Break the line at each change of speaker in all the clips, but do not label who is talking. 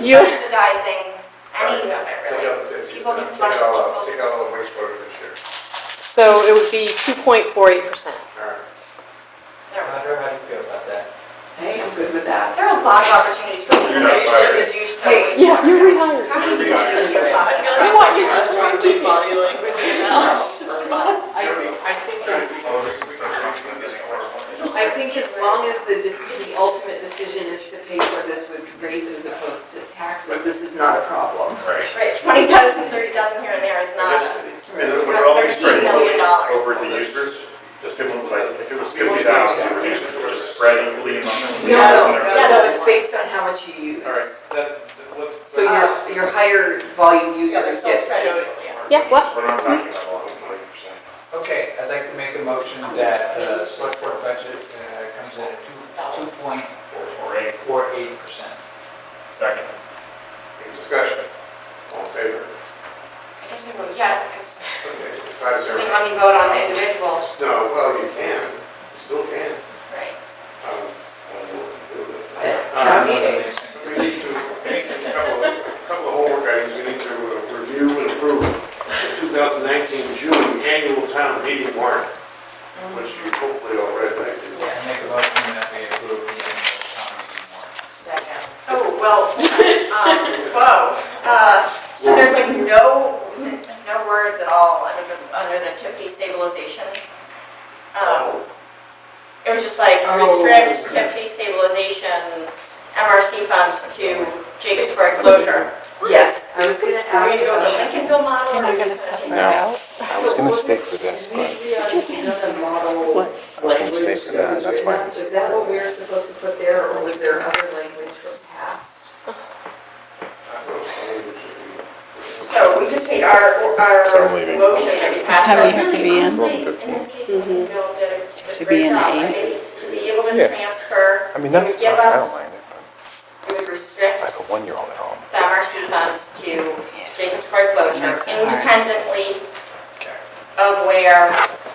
You-
subsidizing any of it,
Take out the
really.
fifty,
People can
take
flush
out all,
people.
take out all the wastewater this year.
So it would be 2.48%.
All right.
There we go.
Roger, how do you feel about that?
Hey, I'm good with that.
There are a lot of opportunities for people.
You're not fired.
Because you still.
Yeah, you're rehired.
How many people do you
I
have?
want you to
Restaurant
keep
body language.
I-
I think
Oh, this is- this is- this is-
I think as long as the, dec- the ultimate decision is to pay for this with rates as opposed to taxes, this is not a problem.
Right.
Right, twenty thousand, thirty thousand here and there is not.
Is it, would it all be spread
Thirteen million dollars.
over the users? If it was like, if it was fifty thousand, it would be just spread equally among them?
No, no, no, no, it's based on how much you use.
All right.
That, that- what's?
So your, your higher volume users get,
Yeah, what?
We're not talking about forty percent.
Okay, I'd like to make a motion that the select board budget uh, comes in at two, two point
Or eight,
four eight percent.
second.
Any discussion? All in favor?
I guess I vote yeah, because
Okay, five
I
zero.
mean, let me vote on the individuals,
No, well, you can, you still can.
right?
Um,
At town meeting.
We need to, a couple of, a couple of homework items we need to uh, review and approve. The 2019 June annual town meeting warrant, which you hopefully all read, I did.
I make a motion that we approve the annual town meeting warrant.
Oh, well, um, whoa. Uh, So there's like no, no words at all under the, under the tip fee stabilization. Um, It was just like restrict tip fee stabilization, MRC funds to Jacobsburg closure. Yes.
I was gonna
Are we
ask
going to go with the Lincolnville
about.
model? or
Am
are
I
we
going to
gonna
step
change
my
No.
out?
I was gonna stick with that,
Did we
but
agree on uh, the model
What?
was gonna
language that
stick with that,
was written
that's why-
up? Is that what we were supposed to put there, or was there other language that passed?
So we just take our, our
I'm leaving.
motion that we passed.
What time do you
out.
have to be in? Mm-hmm.
Honestly, this case, Lincolnville did a- did a great
be in
job.
eight?
They- To be able to
Yeah.
transfer.
I mean, that's
to
fine,
give
I
us-
don't mind it, but
It would restrict
I have a one-year-old at home.
the MRC funds to Jacobsburg closure independently
Okay.
of where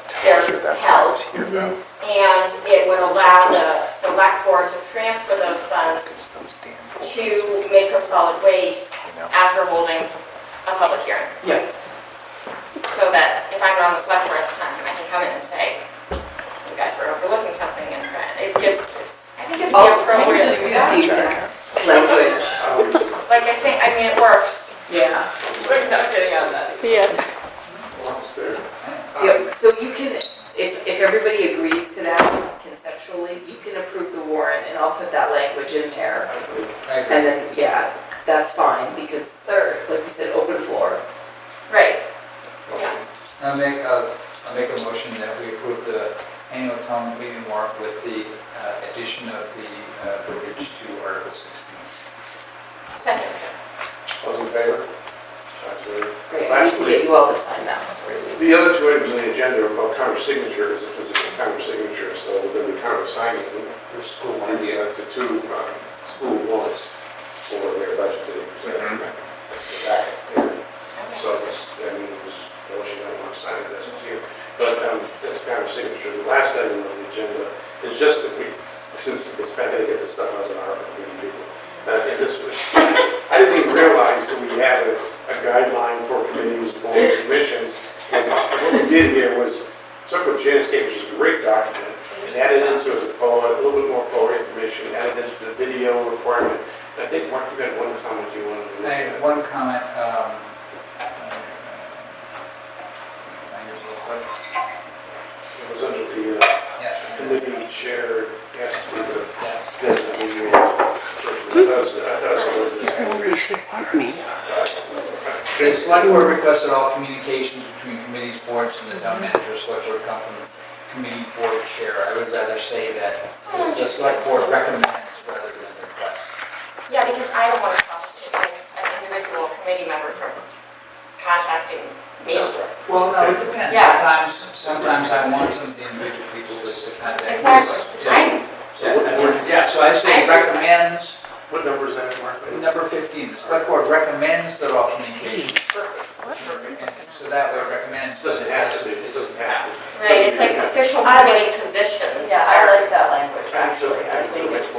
Tell her
they're
that's why I
held.
was here though.
And it would allow the select board to transfer those funds
It's those damn boys,
to
you
Midco Solid Waste
know?
after holding a public hearing.
Yeah.
So that if I'm on the select board at the time, I can come in and say, you guys were overlooking something and it gives this, I think it's the
Oh, we
appropriate.
just use the exact language,
Like, I think, I mean, it works.
yeah. We're not getting on that.
See ya.
Almost there.
Yep, so you can, if, if everybody agrees to that conceptually, you can approve the warrant, and I'll put that language in there.
I agree.
And then, yeah, that's fine, because third, like we said, open floor.
Right.
I'll make, a- I'll make a motion that we approve the annual town meeting warrant with the uh, addition of the uh, verbiage to Article 16.
Second.
Those in favor? Five zero.
Great, I need to get you all to sign that.
The other two items on the agenda are about counter signature, is a physical counter signature, so then the counter signing, the school warrants, uh, the two um, school warrants for their budget. meetings. That's the back there. So it's, I mean, it was, well, she didn't want to sign it, that's up to you. But um, that's counter signature. The last item on the agenda is just that we, since it's better to get this stuff out of our community people. Uh, And this was, I didn't even realize that we had a a guideline for committees, boards, and commissions. And what we did here was took what Janice gave, which is a great document, and added into it the forward, a little bit more forward information, added into the video requirement. And I think, Mark, you had one comment you wanted to
I
make.
have one comment, um, I guess real quick.
It was under the, uh,
Yes.
living shared, yes, with the,
Yes.
yes, I mean, you were, I thought so.
The select board requested all communications between committees, boards, and the town manager, select board come from the committee board chair. I would rather say that the select board recommends rather than requests.
Yeah, because I don't want to prosecute an individual committee member from contacting me.
Well, no, it depends.
Yeah.
Sometimes, sometimes I want some of the individual people just to contact. me.
Exactly. I'm,
Yeah, I mean, Yeah, so I say recommends,
What number is that, Mark?
number 15, the select board recommends that all communications. So that way recommends.
It doesn't have to be, it doesn't have to.
right, it's like official
I like-
committee positions.
Yeah,
are-
I like that language, actually.
actually.
I think it's